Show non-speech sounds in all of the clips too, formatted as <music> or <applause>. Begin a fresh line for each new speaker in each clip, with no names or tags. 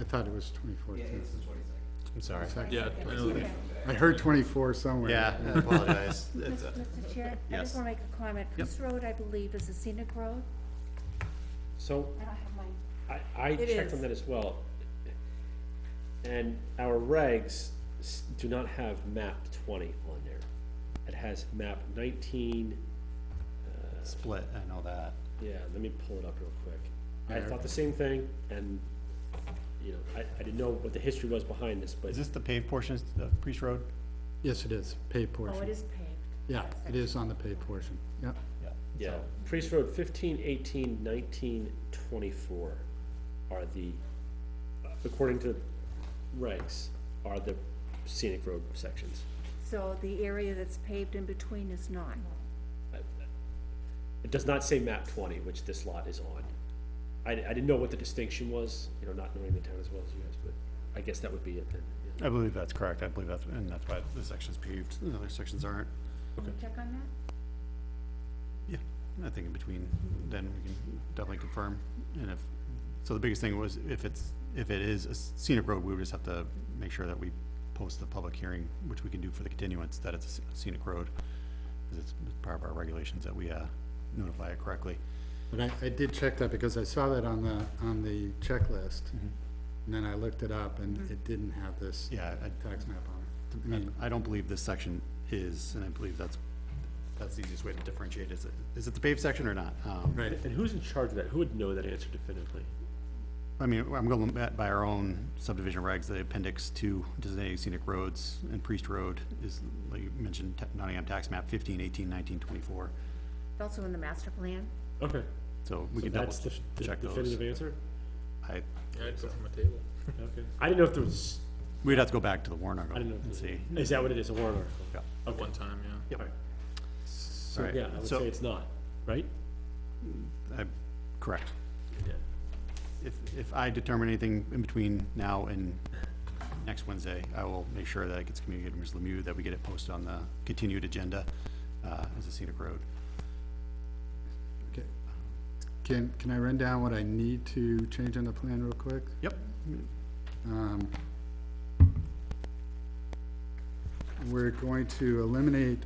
I thought it was twenty-four,
Yeah,
too.
it's the twenty-second.
I'm sorry.
Second.
Yeah, I know that.
I heard twenty-four somewhere.
Yeah, <laughs> I apologize. It's, uh,
Mr. Chair, I
Yes.
just want to make a comment. This road, I believe, is a scenic road.
So
I don't have my,
I, I
It
checked on
is.
that as well. And our regs s- do not have map twenty on there. It has map nineteen,
Split, I know that.
yeah, let me pull it up real quick. I thought the same thing and, you know, I, I didn't know what the history was behind this, but
Is this the paved portion of Priest Road?
<laughs> Yes, it is, paid
oh, it
portion.
is paved.
Yeah, it is on the paid portion, yep.
Yeah.
yeah.
so-
Priest Road fifteen, eighteen, nineteen, twenty-four are the, according to regs, are the scenic road sections.
So the area that's paved in between is not.
It does not say map twenty, which this lot is on. I, I didn't know what the distinction was, you know, not knowing the town as well as you guys, but I guess that would be it then. yeah.
I believe that's correct. I believe that's, and that's why this section's paved, the other sections aren't.
Can you check on that?
Yeah, I think in between, then we can definitely confirm. And if, so the biggest thing was if it's, if it is a scenic road, we would just have to make sure that we post the public hearing, which we can do for the continuance, that it's a scenic road. Because it's part of our regulations that we uh, notify it correctly.
But I, I did check that because I saw that on the, on the checklist. And then I looked it up and
Mm-hmm.
it didn't have this
Mm-hmm. Yeah, I-
tax map on it. I
I-
mean,
I don't believe this section is, and I believe that's, that's the easiest way to differentiate, is it, is it the paved section or not? Um,
right,
And who's in charge of that? Who would know that answer definitively?
I mean, I'm going by- by our own subdivision regs, the appendix two, designated scenic roads and Priest Road is, like you mentioned, ta- Nottingham tax map fifteen, eighteen, nineteen, twenty-four.
It's also in the master plan.
Okay,
So we
so
can double
that's the the
check those.
definitive answer?
I,
I'd go from a table. Okay, I didn't know if there was,
we'd have to go back to the warrant
I didn't
article
know. if
and see.
there- Is that what it is, a warrant article?
Yeah.
At one time, yeah.
Yep.
So,
Alright,
yeah, I would
so-
say it's not, right?
I- Correct.
Yeah.
If, if I determine anything in between now and next Wednesday, I will make sure that it gets communicated to Ms. Lemieux, that we get it posted on the continued agenda, uh, as a scenic road.
okay. Can, can I run down what I need to change on the plan real quick?
Yep,
Um, We're going to eliminate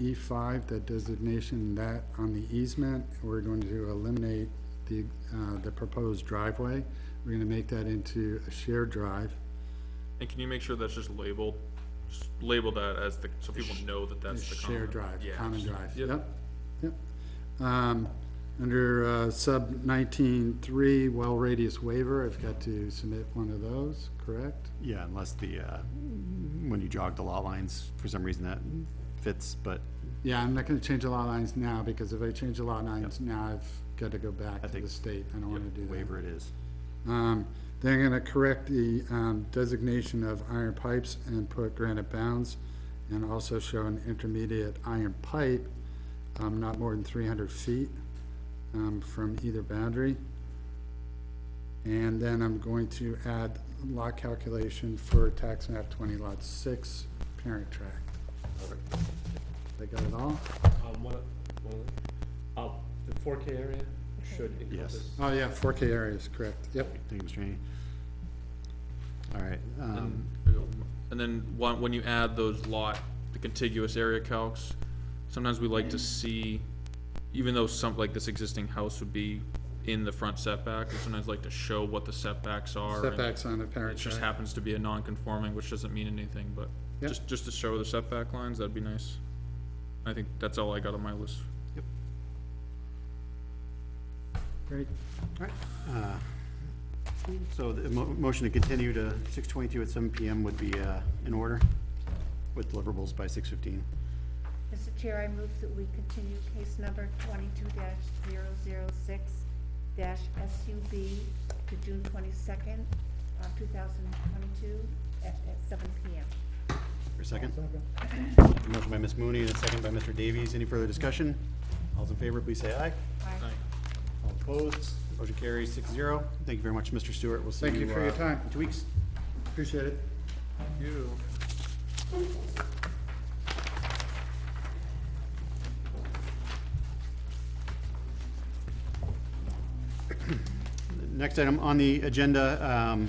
E five, the designation that on the easement. We're going to eliminate the, uh, the proposed driveway. We're gonna make that into a shared drive.
And can you make sure that's just labeled, just label that as the, so people know that that's the common?
Shared drive,
Yeah,
common
just-
drive,
yep.
yep, yep. Um, under, uh, sub nineteen three, well radius waiver, I've got to submit one of those, correct?
yeah, unless the, uh, when you jog the lot lines, for some reason that fits, but
Yeah, I'm not gonna change the lot lines now, because if I change the lot lines now, I've got to go back to the
think-
state, I don't wanna do that.
waiver it is.
Um, they're gonna correct the, um, designation of iron pipes and put granite bounds, and also show an intermediate iron pipe, um, not more than three hundred feet, um, from either boundary. And then I'm going to add lot calculation for tax map twenty lot six, parent tract. They got it all?
Um, one, one, uh, the four K area should encompass.
Oh, yeah, four K areas, correct, yep.
Thank you, Mr. Haney. All right, um,
And then one, when you add those lot, the contiguous area calcs, sometimes we like to see, even though some, like this existing house would be in the front setback, we sometimes like to show what the setbacks are. and
Setbacks on the
It
parent
Um, just
tract.
happens to be a non-conforming, which doesn't mean anything, but
Yep.
just, just to show the setback lines, that'd be nice. I think that's all I got on my list.
Great.
so the mo- motion to continue to six twenty-two at seven PM would be, uh, in order with deliverables by six fifteen.
Mr. Chair, I move that we continue case number twenty-two 6 SUB to June twenty-second, uh, two thousand twenty-two at, at seven PM.
For a second? Motion by Ms. Mooney and a second by Mr. Davies. Any further discussion? All's in favor, please say aye.
Aye.
All opposed? Motion carries six zero. Thank you very much, Mr. Stewart. We'll see you.
Thank you for your
uh,
time.
in Two weeks.
Appreciate it.
Next item on the agenda, um,